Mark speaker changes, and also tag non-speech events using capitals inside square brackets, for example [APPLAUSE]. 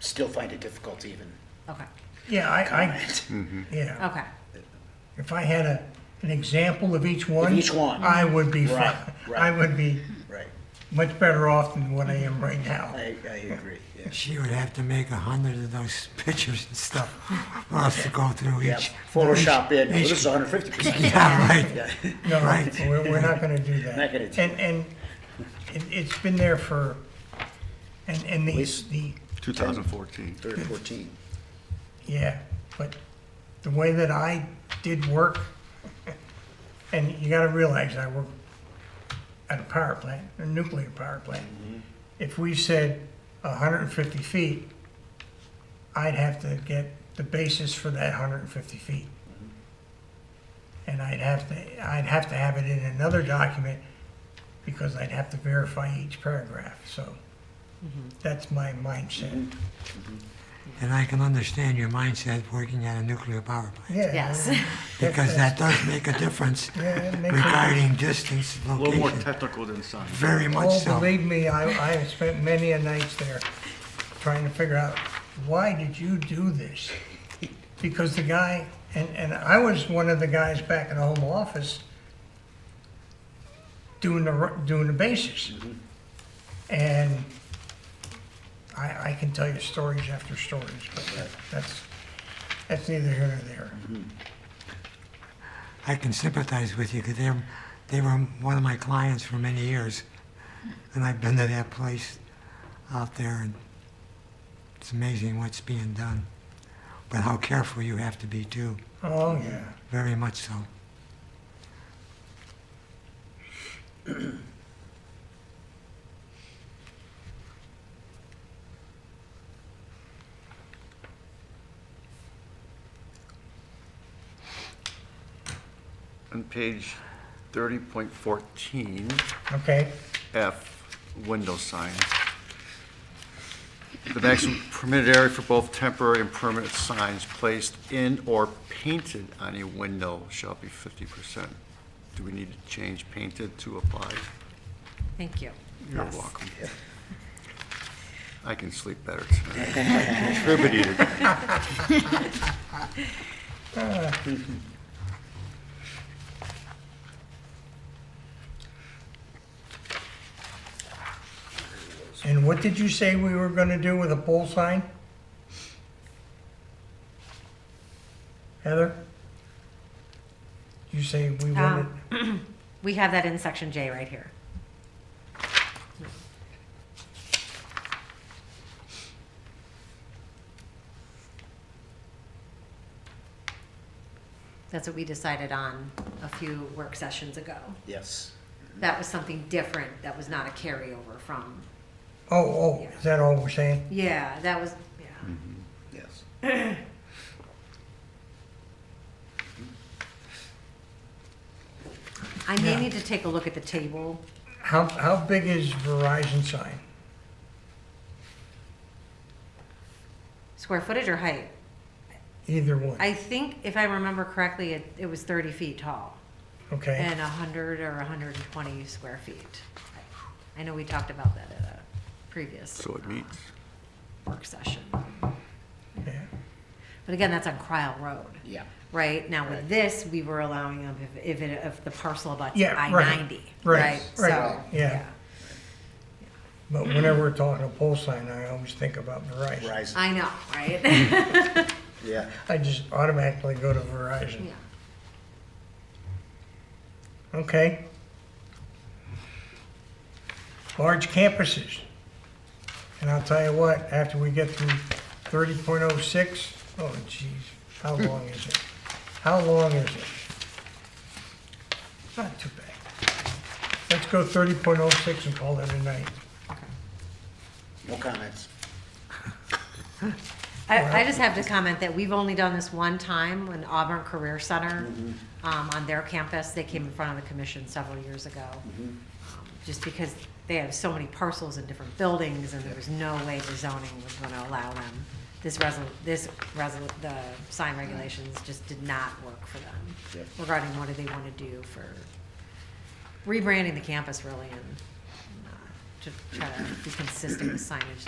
Speaker 1: still find it difficult to even
Speaker 2: Okay,
Speaker 3: Yeah, I, I,
Speaker 1: comment.
Speaker 3: yeah.
Speaker 2: okay.
Speaker 3: If I had a, an example of each one.
Speaker 1: each one.
Speaker 3: I would be,
Speaker 1: Right,
Speaker 3: fi-
Speaker 1: right.
Speaker 3: I would be
Speaker 1: [LAUGHS] Right,
Speaker 3: much better off than what I am right now.
Speaker 1: I, I agree,
Speaker 4: [LAUGHS]
Speaker 1: yeah.
Speaker 5: She would have to make a hundred of those [LAUGHS] pictures and stuff for us to go through
Speaker 1: Yeah,
Speaker 5: each.
Speaker 1: Photoshop in, well,
Speaker 5: each-
Speaker 1: this is hundred fifty
Speaker 4: [LAUGHS]
Speaker 1: percent.
Speaker 5: [LAUGHS] Yeah, right.
Speaker 1: Yeah,
Speaker 3: No,
Speaker 5: Right.
Speaker 3: we're, we're not gonna do that.
Speaker 1: Not gonna do
Speaker 3: And, and it, it's been there for, and, and the,
Speaker 1: least-
Speaker 3: the,
Speaker 4: 2014.
Speaker 1: third, fourteen.
Speaker 3: yeah, but the way that I did work, and you gotta realize I work at a power plant, a nuclear power plant. If we said hundred and fifty feet, I'd have to get the basis for that hundred and fifty feet. And I'd have to, I'd have to have it in another document because I'd have to verify each paragraph, so that's my mindset.
Speaker 5: And I can understand your mindset working at a nuclear power
Speaker 3: Yeah.
Speaker 5: plant,
Speaker 2: Yes.
Speaker 5: because that does make a difference
Speaker 3: Yeah, it makes a-
Speaker 5: regarding distance,
Speaker 4: A little more
Speaker 5: location,
Speaker 4: technical than science.
Speaker 5: very much
Speaker 3: Oh,
Speaker 5: so.
Speaker 3: believe me, I, I have spent many a nights there trying to figure out, why did you do this? Because the guy, and, and I was one of the guys back in the home office doing the, r- doing the bases. And I, I can tell you stories after stories, but that- that's, that's neither here nor there.
Speaker 5: I can sympathize with you, because they're, they were one of my clients for many years, and I've been to that place out there, and it's amazing what's being done, but how careful you have to be too,
Speaker 3: Oh, yeah.
Speaker 5: very much so.
Speaker 4: On page 30.14,
Speaker 3: Okay,
Speaker 4: F, window signs. The maximum permitted area for both temporary and permanent signs placed in or painted on a window shall be 50%. Do we need to change painted to apply?
Speaker 2: [LAUGHS] Thank you.
Speaker 4: You're
Speaker 2: Yes.
Speaker 4: welcome. I can sleep better tonight. [LAUGHS] I Contributed.
Speaker 3: and what did you say we were gonna do with a pole sign? Heather? You say
Speaker 2: Um,
Speaker 3: we wanted,
Speaker 2: [CLEARS THROAT] We have that in section J right here. That's what we decided on a few work sessions ago.
Speaker 1: Yes,
Speaker 2: That was something different, that was not a carryover from,
Speaker 3: oh, oh, is that all we're saying?
Speaker 2: yeah, that was,
Speaker 4: Hmm.
Speaker 2: yeah.
Speaker 1: yes.
Speaker 2: I may need to take a look at the table.
Speaker 3: How, how big is Verizon sign?
Speaker 2: Square footage or height?
Speaker 3: Either one,
Speaker 2: I think, if I remember correctly, it, it was thirty feet tall.
Speaker 3: okay?
Speaker 2: and 100 or 120 square feet. I know we talked about that at a previous.
Speaker 4: So it
Speaker 2: uh,
Speaker 4: meets.
Speaker 2: Work session.
Speaker 3: Yeah.
Speaker 2: But again, that's on Cryle Road,
Speaker 1: Yeah,
Speaker 2: right? Now with
Speaker 1: Right.
Speaker 2: this, we were allowing them if, if it, if the parcel abuts
Speaker 3: Yeah,
Speaker 2: I
Speaker 3: right,
Speaker 2: 90,
Speaker 3: right,
Speaker 2: right?
Speaker 3: right,
Speaker 2: So,
Speaker 3: yeah. But whenever we're talking a pole sign, I always think about Verizon.
Speaker 1: Verizon,
Speaker 2: I know, right?
Speaker 3: Mm-hmm.
Speaker 1: yeah.
Speaker 3: I just automatically go to
Speaker 2: [LAUGHS]
Speaker 3: Verizon.
Speaker 2: Yeah.
Speaker 3: Okay. Large campuses. And I'll tell you what, after we get through thirty point oh six, oh geez, how long is it? How long is it? Not too bad. Let's go thirty point oh six and call it a night.
Speaker 1: No comments.
Speaker 2: I, I just have to comment that we've only done this one time when Auburn Career Center, um, on their campus, they came in front of the commission several years ago. Um, Just because they have so many parcels in different buildings and there was no way the zoning was gonna allow them. This resol, this resol, the sign regulations just did not work for them
Speaker 1: Yep.
Speaker 2: regarding what do they wanna do for rebranding the campus really and uh, to try to be consistent with signage